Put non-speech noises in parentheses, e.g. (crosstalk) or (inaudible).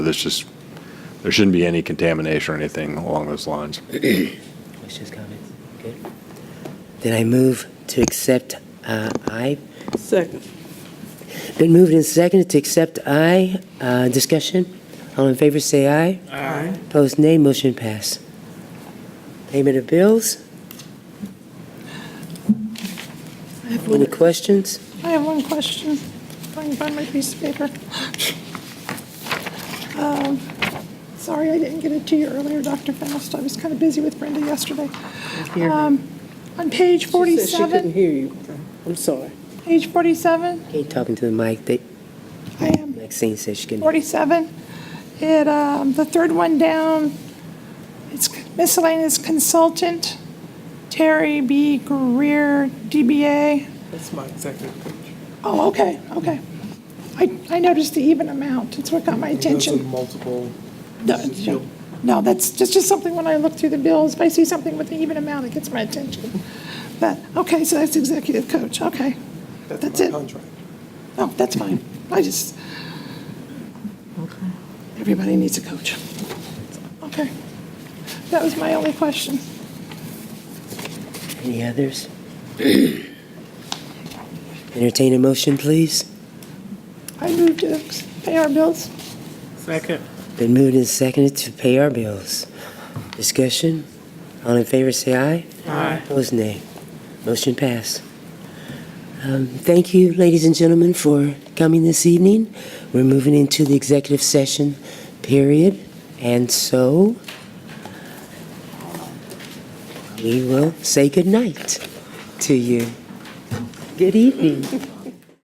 This just, there shouldn't be any contamination or anything along those lines. Questions, comments? Good. Then I move to accept uh, I. Second. Been moved and seconded to accept I. Uh, Discussion? All in favor, say aye. Aye. Opposed, nay. Motion pass. Payment of bills? I have Any one, questions? I have one question. If I can find my piece of paper. Um, Sorry, I didn't get it to you earlier, Dr. Faust. I was kind of busy with Brenda yesterday. Um, On page She said she couldn't 47, hear you. I'm sorry. page 47, Hey, talking to the mic, they- I am Maxine says she can. 47. It, um, the third one down, it's miscellaneous consultant, Terry B. Greer, DBA. That's my executive coach. Oh, okay, okay. I, I noticed the even amount. It's what got my attention. multiple. No, it's- No, that's just, just something when I look through the bills, if I see something with an even amount, it gets my attention. But, okay, so that's executive coach, okay. That's it. Oh, that's fine. I just, everybody needs a coach. Okay. That was my only question. Any others? (clears throat) Entertain a motion, please. I moved to pay our bills. Second. Been moved and seconded to pay our bills. Discussion? All in favor, say aye. Aye. Opposed, nay. Motion passed. Um, Thank you, ladies and gentlemen, for coming this evening. We're moving into the executive session period, and so we will say goodnight to you. Good evening.